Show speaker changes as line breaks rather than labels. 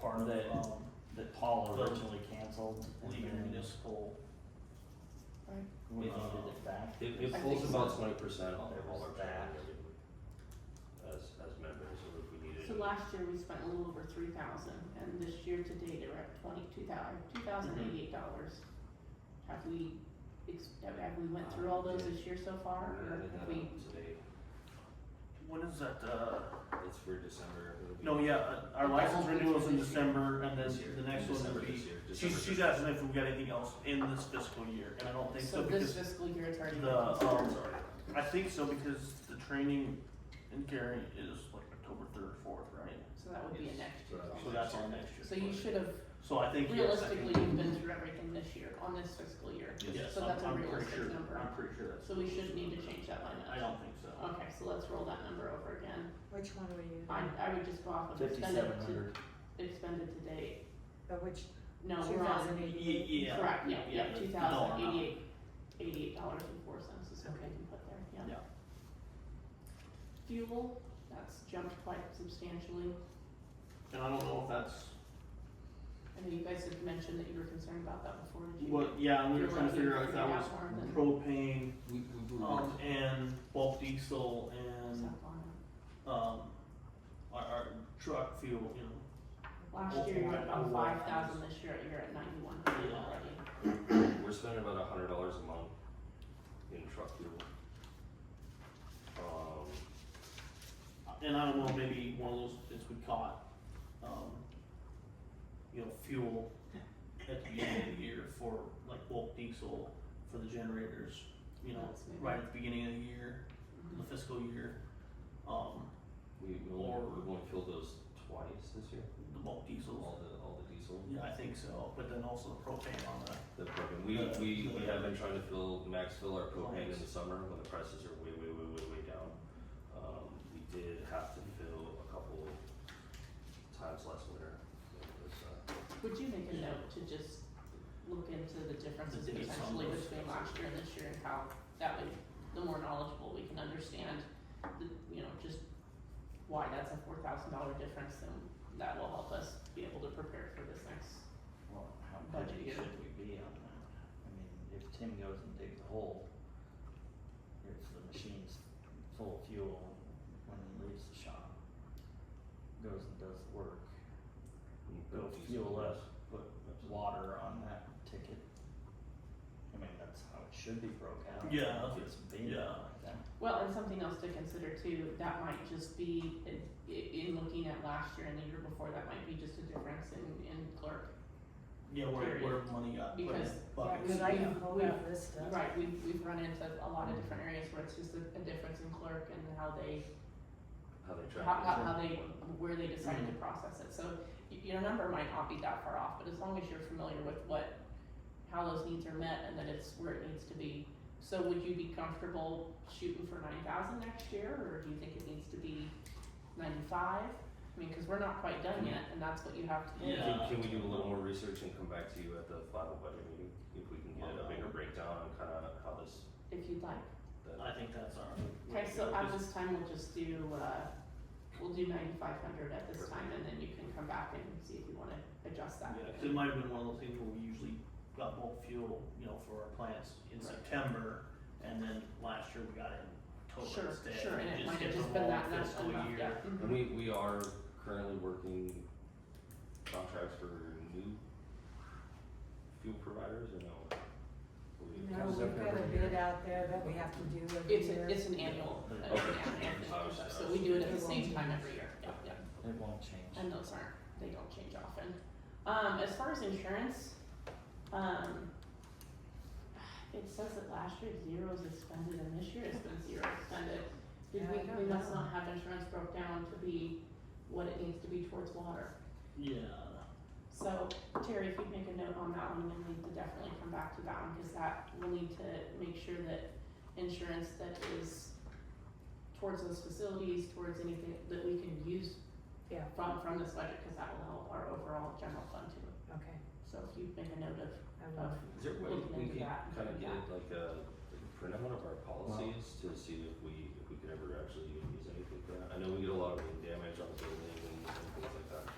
part of,
That-
um,
that Paul originally canceled. and
leaving
then
municipal.
Right.
We needed it back.
It, it
I
pulls
think
about
so.
twenty percent of all our
Back.
training every week as, as members, so if we needed.
So last year we spent a little over three thousand, and this year to date, we're at twenty-two thousand, two thousand
Mm-hmm.
eighty-eight dollars. Have we, ex- have have we went through all those this year so far, or have we,
today,
When is that, uh,
it's for December. it'll be
no, yeah, uh, our license renewal's in December and then
this year,
the next one
December
would be.
this year, December
She's, she's
first.
asking if we've got anything else in this fiscal year, and I don't think so
so this
because,
fiscal year it's already been
the, um,
considered?
Sorry.
I think so because the training in Gary is like October third, fourth, right?
So that would be a
Yes.
next year's.
So
So
also.
that's on next year.
So you should have,
So I think, yes, I
realistically,
think-
you've been through everything this year, on this fiscal year,
yes,
so
I'm,
that's a
I'm pretty
realistic
sure,
number.
I'm pretty sure that's.
so we shouldn't need to change that line
I
item.
don't think so.
Okay, so let's roll that number over again,
Which one were you,
I, I would just go off of expended
Fifty-seven
to,
hundred.
expended to date,
uh, which,
no,
two
we're on
thousand
Ye-
eighty?
yeah,
Correct, yeah,
yeah, yeah,
yeah, two
no, I'm not.
thousand eighty-eight, eighty-eight dollars and four cents is what I can put there, yeah.
Yeah.
Fuel, that's jumped quite substantially,
And I don't know if that's
I know you guys had mentioned that you were concerned about that before, did you?
Well, yeah, and we were
You're
trying to
looking
figure out if
figure
that was
out more than-
propane,
We, we, we.
um, and bulk diesel
Stuff
and,
on
um, our, our truck fuel, you know.
it. Last year you were at about five thousand, this year you're at ninety-one hundred
Yeah.
already,
We're spending about a hundred dollars a month in truck fuel. Um,
And I don't know, maybe one of those things we caught, um, you know, fuel at the beginning of the year for like bulk diesel for the generators, you know,
That's maybe-
right at the beginning of the year, the fiscal year. Um,
we, we
Or-
only, we only filled those twice this year,
the bulk diesel,
all the, all the diesel.
yeah, I think so, but then also the propane on the
The propane, we,
Yeah.
we, we have been trying to fill, max fill our propane in
Nice.
the summer when the prices are way, way, way, way, way down. Um, we did have to fill a couple times last winter. It was, uh,
would you make a note to just look into the differences
The dates on
potentially
those.
between last year and this year and how that would, the more knowledgeable we can understand, the, you know, just why that's a four thousand dollar difference, then that will help us be able to prepare for this next.
Well, how
Budget
budget
year.
should we be on that? I mean, if Tim goes and digs a hole, if the machine's full of fuel when he leaves the shop, goes and does the work,
we
go
built diesel
fuel
last-
us, put water on that ticket. I mean, that's how it should be broke out.
Yeah, that's
It's big
yeah.
like that.
Well, and something else to consider too, that might just be, in, in looking at last year and the year before, that might be just a difference in, in clerk.
Yeah, where,
Period.
where money got put in
Because-
buckets.
Yeah,
Cause I
Yeah.
can hold
Yeah.
this stuff.
Right, we've, we've run into a lot of different areas where it's just a, a difference in clerk and how they
How they track.
how,
it.
how, how they, where they decided to process it, so y- your number might not be that far off, but as long as you're familiar with what, how those needs are met and that it's where it needs to be. So would you be comfortable shooting for nine thousand next year, or do you think it needs to be ninety-five? I mean, cause we're not quite done yet, and that's what you have to do.
Yeah.
Can, can we do a little more research and come back to you at the final budget meeting, if we can get a bigger
Um,
breakdown on kinda how this,
If you'd like,
that,
I think that's our.
okay, so at
Because-
this time, we'll just do, uh, we'll do ninety-five hundred at this time, and then you can come back and see if you wanna adjust that.
Yeah, 'cause it might have been one of those things where we usually got bulk fuel, you know, for our plants in
Right.
September, and then last year we got it in October
Sure,
instead.
sure, and it might
hit
have just
the
been
wrong
that, that's
fiscal
enough,
year. Mm-hmm.
yeah, mhm.
and we, we are currently working contracts for new fuel providers or no? We-
No, we've got a bid out there that we have to do every
It's
year.
a, it's an annual, uh,
Okay.
yeah, annual
Obviously,
so we do it at the same time every year, yeah, yeah,
It won't change.
and those aren't, they don't change often. Um, as far as insurance, um, it says that last year zero is expended and this year it's been zero expended. Did
Yeah, I don't
we, we must
know.
not have insurance broke down to be what it needs to be towards water.
Yeah,
So Terry, if you make a note on that one, we need to definitely come back to that one, cause that, we'll need to make sure that insurance that is towards those facilities, towards anything that we can use
Yeah.
from, from this budget, cause that will help our overall general fund too.
Okay,
So if you make a note of,
I
of,
will.
Is there a way
Looking
we
into
could
that and
kinda
looking
get
back.
like a, like a printout of our policies to see if we, if we could ever actually use anything for that? I know we get a lot of wind damage on buildings and things like that.